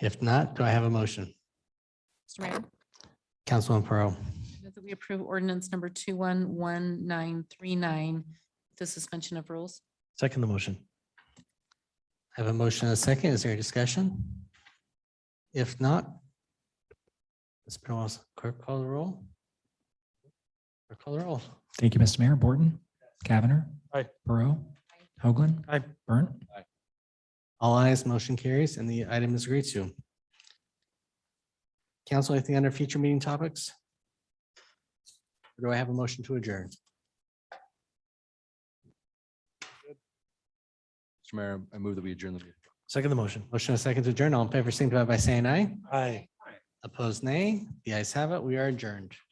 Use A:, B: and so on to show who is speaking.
A: If not, do I have a motion?
B: Mr. Mayor,
A: Councilwoman Pearl,
B: I move that we approve ordinance number two one one nine three nine, the suspension of rules.
C: Second the motion.
A: I have a motion and a second. Is there any discussion? If not, Ms. Pinellas, clerk call the roll. Clerk Call the roll.
D: Thank you, Mr. Mayor. Borton. Cavanagh.
C: Aye.
D: Burrow. Hoagland.
C: Aye.
D: Burnt.
A: All eyes, motion carries, and the item is agreed to. Council, anything under future meeting topics? Or Do I have a motion to adjourn?
E: Mr. Mayor, I move that we adjourn the meeting.
C: Second the motion.
A: Motion and a second to adjourn. All in favor, signify by saying aye.
C: Aye.
A: Opposed, nay. The ayes have it. We are adjourned.